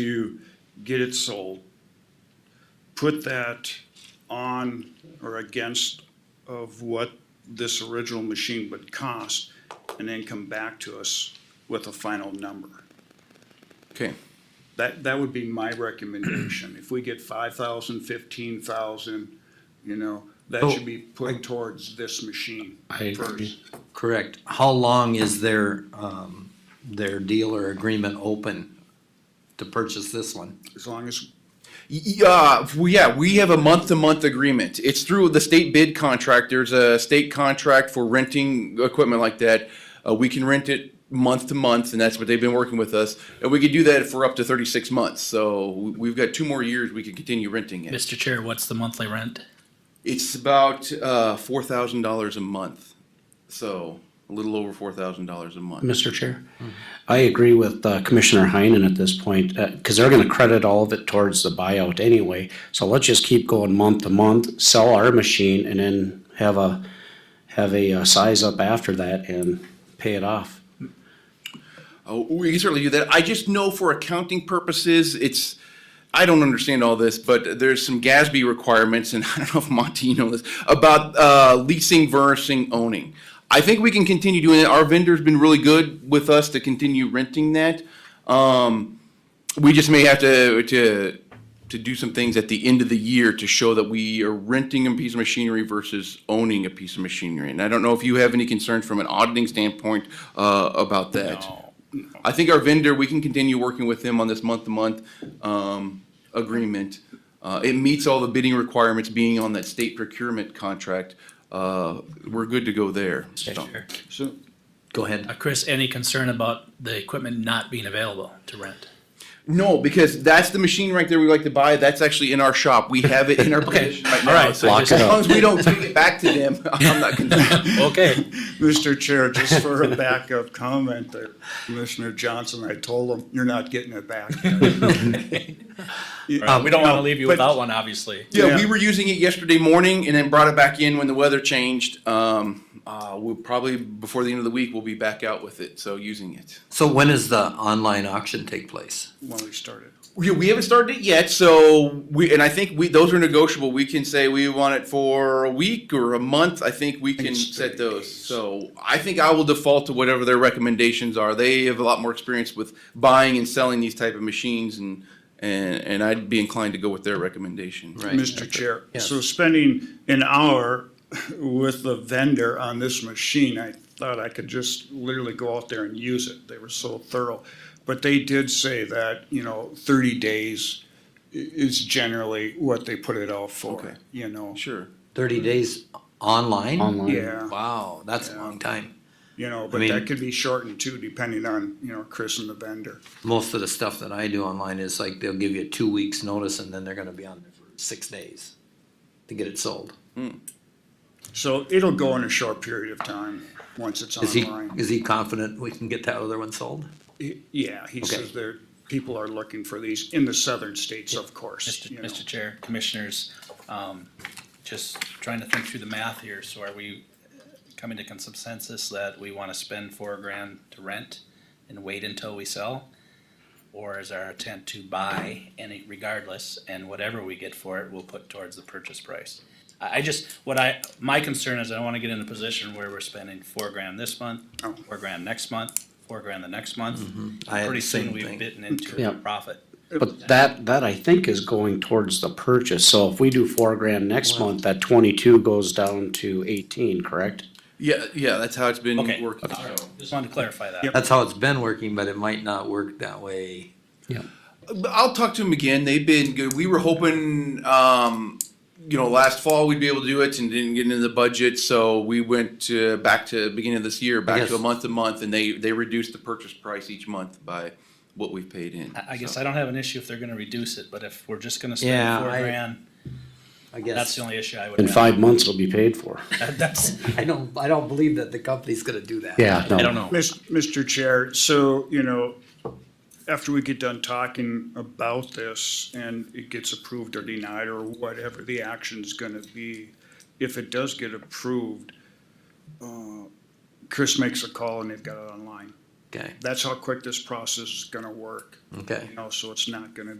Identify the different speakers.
Speaker 1: to get it sold, put that on or against of what this original machine would cost, and then come back to us with a final number.
Speaker 2: Okay,
Speaker 1: That, that would be my recommendation. If we get five thousand, fifteen thousand, you know, that should be put towards this machine
Speaker 3: I
Speaker 1: first.
Speaker 3: Correct. How long is their, um, their dealer agreement open to purchase this one?
Speaker 1: As long as,
Speaker 2: yeah, we, yeah, we have a month-to-month agreement. It's through the state bid contract. There's a state contract for renting equipment like that. Uh, we can rent it month to month, and that's what they've been working with us. And we could do that for up to thirty-six months, so we- we've got two more years we can continue renting it.
Speaker 4: Mr. Chair, what's the monthly rent?
Speaker 2: It's about, uh, four thousand dollars a month, so a little over four thousand dollars a month.
Speaker 5: Mr. Chair, I agree with uh, Commissioner Heinen at this point, because they're going to credit all of it towards the buyout anyway. So let's just keep going month to month, sell our machine, and then have a, have a uh, size up after that and pay it off.
Speaker 2: Oh, we can certainly do that. I just know for accounting purposes, it's, I don't understand all this, but there's some GASB requirements, and I don't know if Monty, you know this, about uh, leasing versus owning. I think we can continue doing it. Our vendor's been really good with us to continue renting that. Um, we just may have to, to, to do some things at the end of the year to show that we are renting a piece of machinery versus owning a piece of machinery. And I don't know if you have any concerns from an auditing standpoint, uh, about that.
Speaker 1: no,
Speaker 2: I think our vendor, we can continue working with them on this month-to-month um, agreement. Uh, It meets all the bidding requirements, being on that state procurement contract. Uh, We're good to go there. So-
Speaker 1: so,
Speaker 3: Go ahead.
Speaker 4: Uh, Chris, any concern about the equipment not being available to rent?
Speaker 2: No, because that's the machine right there we like to buy. That's actually in our shop. We have it in our possession right now.
Speaker 4: all right,
Speaker 2: So
Speaker 4: lock
Speaker 2: As
Speaker 4: it
Speaker 2: long
Speaker 4: up.
Speaker 2: as we don't take it back to them, I'm not concerned.
Speaker 4: Okay.
Speaker 1: Mr. Chair, just for a backup comment there, Commissioner Johnson, I told him, you're not getting it back.
Speaker 4: Uh, We don't want to leave you
Speaker 1: but-
Speaker 4: without one, obviously.
Speaker 2: Yeah, we
Speaker 1: Yeah.
Speaker 2: were using it yesterday morning and then brought it back in when the weather changed. Um, uh, We'll probably, before the end of the week, we'll be back out with it, so using it.
Speaker 3: So when does the online auction take place?
Speaker 1: When we started.
Speaker 2: We, we haven't started it yet, so we and I think we those are negotiable. We can say we want it for a week or a month. I think we can
Speaker 1: it's
Speaker 2: set
Speaker 1: 30
Speaker 2: those.
Speaker 1: days.
Speaker 2: So I think I will default to whatever their recommendations are. They have a lot more experience with buying and selling these type of machines, and and and I'd be inclined to go with their recommendation.
Speaker 3: Right.
Speaker 1: Mr. Chair, so spending an hour with the vendor on this machine, I thought I could just literally go out there and use it. They were so thorough. But they did say that, you know, thirty days i- is generally what they put it out
Speaker 2: Okay.
Speaker 1: for, you know?
Speaker 2: Sure.
Speaker 3: Thirty days online?
Speaker 5: Online.
Speaker 1: Yeah,
Speaker 3: Wow, that's a long time.
Speaker 1: you know, but
Speaker 3: mean-
Speaker 1: that could be shortened too, depending on, you know, Chris and the vendor.
Speaker 3: Most of the stuff that I do online is like they'll give you two weeks' notice and then they're gonna be on there for six days to get it sold.
Speaker 1: So it'll go in a short period of time, once it's
Speaker 3: Is he,
Speaker 1: online.
Speaker 3: is he confident we can get that other one sold?
Speaker 1: He- Yeah, he says there, people are looking for these in the southern states, of course,
Speaker 4: Mr.
Speaker 1: you know.
Speaker 4: Mr. Chair, Commissioners, um, just trying to think through the math here. So are we coming to consensus that we want to spend four grand to rent and wait until we sell? Or is our intent to buy any regardless, and whatever we get for it, we'll put towards the purchase price? I, I just, what I, my concern is I don't want to get in a position where we're spending four grand this month,
Speaker 1: Oh.
Speaker 4: four grand next month, four grand the next month.
Speaker 3: Mm-hmm. I had
Speaker 4: Pretty
Speaker 3: the
Speaker 4: soon
Speaker 3: same
Speaker 4: we've
Speaker 3: thing.
Speaker 4: bitten into
Speaker 5: Yeah.
Speaker 4: a profit.
Speaker 5: But that, that I think is going towards the purchase. So if we do four grand next month, that twenty-two goes down to eighteen, correct?
Speaker 2: Yeah, yeah. That's how it's been
Speaker 4: Okay.
Speaker 2: working.
Speaker 4: All right.
Speaker 2: So.
Speaker 4: Just wanted to clarify that.
Speaker 1: Yep.
Speaker 3: That's how it's been working, but it might not work that way.
Speaker 2: But I'll talk to them again. They've been good. We were hoping, um, you know, last fall we'd be able to do it and didn't get into the budget, so we went to, back to beginning of this year, back
Speaker 3: Yes.
Speaker 2: to a month to month, and they they reduced the purchase price each month by what we've paid in.
Speaker 4: I, I guess
Speaker 2: So-
Speaker 4: I don't have an issue if they're gonna reduce it, but if we're just gonna spend
Speaker 3: Yeah,
Speaker 4: four
Speaker 3: I-
Speaker 4: grand,
Speaker 3: I guess.
Speaker 4: that's the only issue I would
Speaker 5: In
Speaker 4: have.
Speaker 5: five months, it'll be paid for.
Speaker 4: That's,
Speaker 3: I don't, I don't believe that the company's gonna do that.
Speaker 5: Yeah, no.
Speaker 4: I don't know.
Speaker 1: Mis- Mr. Chair, so, you know, after we get done talking about this and it gets approved or denied or whatever the action's gonna be, if it does get approved, uh, Chris makes a call and they've got it online.
Speaker 3: Okay,
Speaker 1: That's how quick this process is gonna work,
Speaker 3: okay.
Speaker 1: you know, so it's not gonna